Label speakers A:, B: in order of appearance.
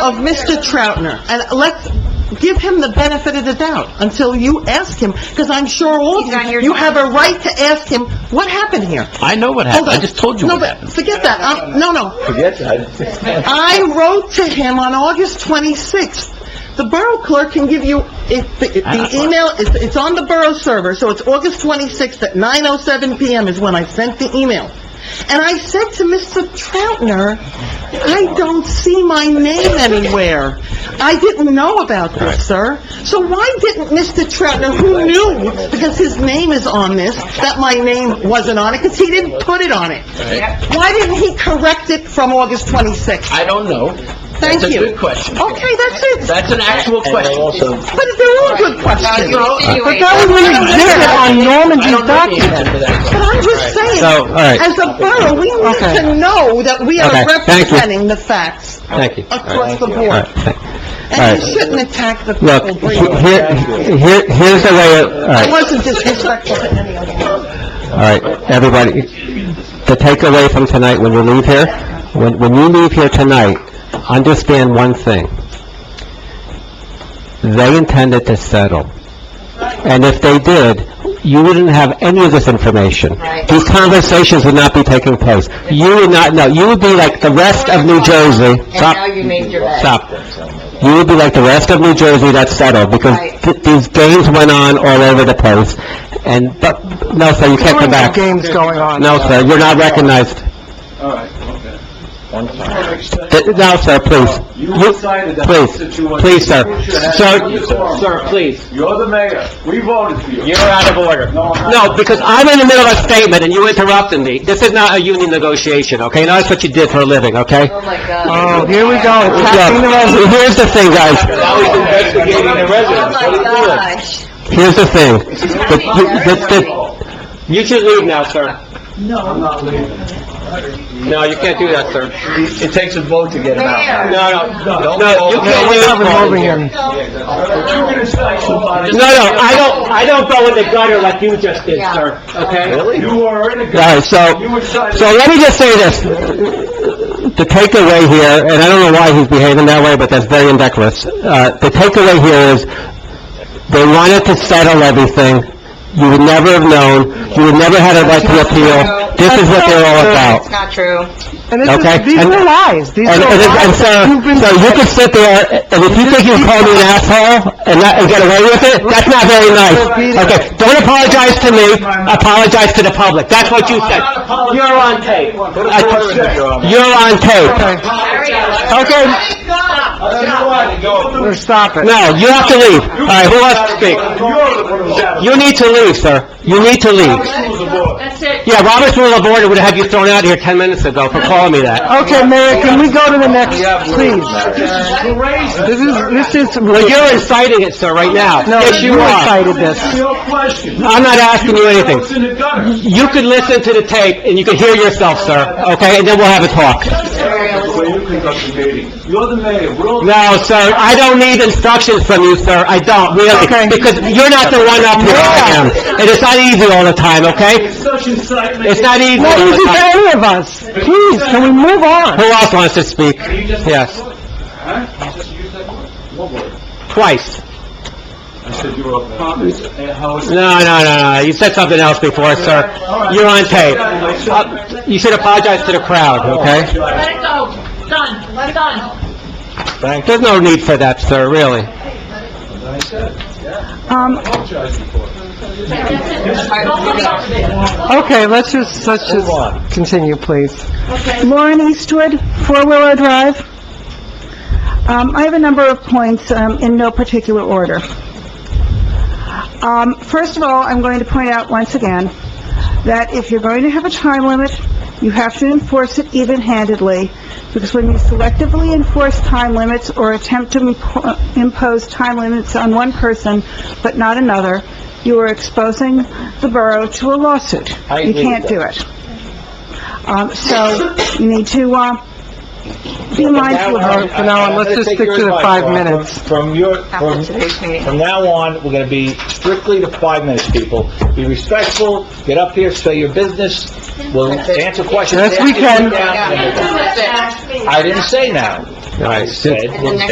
A: of Mr. Troutner, and let's give him the benefit of the doubt until you ask him, because I'm sure all of
B: He's not
A: you,
B: here
A: you
B: tonight.
A: have a right to ask him, what happened here?
C: I know what
A: Hold
C: happened,
A: on.
C: I just told you what
A: No,
C: happened.
A: but forget that, I'm, no, no.
C: Forget that.
A: I wrote to him on August 26th. The borough clerk can give you, it, the, the email, it's, it's on the borough server, so it's August 26th at 9:07 PM is when I sent the email. And I said to Mr. Troutner, I don't see my name anywhere. I didn't know about this, sir. So why didn't Mr. Troutner, who knew, because his name is on this, that my name wasn't on it, because he didn't put it on it? Why didn't he correct it from August 26th?
C: I don't know.
A: Thank you.
C: That's a good question.
A: Okay, that's it.
C: That's an actual question.
A: But they're all good questions.
B: Well, you
A: But
B: insinuate-
A: that was an exhibit on
C: I
A: Normandy's
C: don't know the
A: document.
C: answer to that
A: But I'm just saying,
D: So, all right.
A: as a borough, we need
D: Okay.
A: to know that we
D: Okay,
A: are
D: thank you.
A: representing the facts
D: Thank you.
A: across the
D: All
A: board.
D: right, thank-
A: And you
D: all right.
A: shouldn't attack the
D: Look,
A: people.
D: he-
A: breathing.
D: here, here- here's the way, it- all
A: I
D: right,
A: wasn't disrespectful to any of you.
D: all right, everybody, the takeaway from tonight, when you leave here, when, when you leave here tonight, understand one thing. They intended to settle. And if they did, you wouldn't have any of this information.
B: Right.
D: These conversations would not be taking place. You would not know, you would be like the rest of New Jersey.
B: And
D: Stop.
B: now you made your bed.
D: Stop. You would be like the rest of New Jersey that's settled, because
B: Right.
D: th- these games went on all over the place, and, but, no, sir, you can't come back.
A: Games going on. uh,
D: No, sir, you're not recognized.
E: All right, okay.
D: Th- No, sir, please.
E: You
D: You-
E: decided that
D: please,
E: situation.
D: please, sir. Sir-
E: Sir, please. You're the mayor. We voted for you. You're out of order. No, I'm not.
D: No, because I'm in the middle of a statement, and you interrupted me. This is not a union negotiation, okay? Now, that's what you did for a living, okay?
B: Oh, my God.
A: here we go,
D: Look, here's the thing,
C: Now
D: guys.
C: he's investigating the
B: Oh,
C: residents. What are
B: my
C: you doing?
B: gosh.
D: Here's the thing. The- you- the- the-
C: You should leave now, sir. No. I'm not leaving. No, you can't do that, sir. It takes a vote to get him No,
B: Mayor.
C: no, no, you can't leave.
E: But you're gonna say somebody.
C: No, no, I don't, I don't go in the gutter like you just did,
B: Yeah.
C: sir, okay?
E: You are in a...
D: All right, so,
E: You decided...
D: so let me just say this. The takeaway here, and I don't know why he's behaving that way, but that's very indecorous. Uh, the takeaway here is, they wanted to settle everything. You would never have known, you would never had a right to appeal. This is what they're all about.
B: It's not true.
A: And
D: is- Okay, these and- are
A: lies, these
D: And, and, and so, so you could sit there, and if you think you called me an asshole and not, and get away with it, that's not very nice. Okay, don't apologize to me, apologize to the public. That's what you said. You're on tape. You're on tape. Okay,
A: Stop it.
D: no, you have to leave. All right, who wants to speak?
E: You're the one who's out.
D: You need to leave, sir. You need to leave.
E: Rules of order.
D: Yeah, Robert's Rule of Order would have you thrown out here 10 minutes ago for calling me that.
A: Okay, Mayor, can we go to the next, please? This is, this is...
D: But you're inciting it, sir, right now. Yes, you are.
E: Answer your question.
D: I'm not asking you anything.
E: It's in the gutter.
D: You could listen to the tape, and you could hear yourself, sir, okay? And then we'll have a talk.
E: The way you conduct the meeting. You're the mayor. We're all...
D: No, sir, I don't need instructions from you, sir, I don't, really, because you're not the one up here, I am. And it's not easy all the time, okay?
E: Such incitement.
D: It's not easy all the time.
A: any of us. Please, can we move on?
D: Who else wants to speak?
E: You just-
D: Yes,
E: Huh? You just used that word. What word?
D: twice.
E: I said you were a promise and how it's...
D: No, no, no, no, you said something else before, sir. You're on tape. Uh, You should apologize to the crowd, okay?
F: Let it go. Done. Let it go.
D: There's no need for that, sir, really.
A: Okay, let's just, let's just continue, please.
G: Lauren Eastwood, Four Willow Drive. Um, I have a number of points um, in no particular order. Um, First of all, I'm going to point out once again that if you're going to have a time limit, you have to enforce it even-handedly, because when you selectively enforce time limits or attempt to impo- impose time limits on one person but not another, you are exposing the borough to a lawsuit. You can't do it. Um, So you need to uh, be mindful of
A: All right, from now on, let's just stick to the five minutes.
H: From your,
B: After
H: from,
B: today's meeting.
H: from now on, we're gonna be strictly to five minutes, people. Be respectful, get up here, say your business, we'll answer questions.
A: Yes, we
H: after
A: can.
H: you're down. I didn't say now.
C: All right,
I: said.
C: since-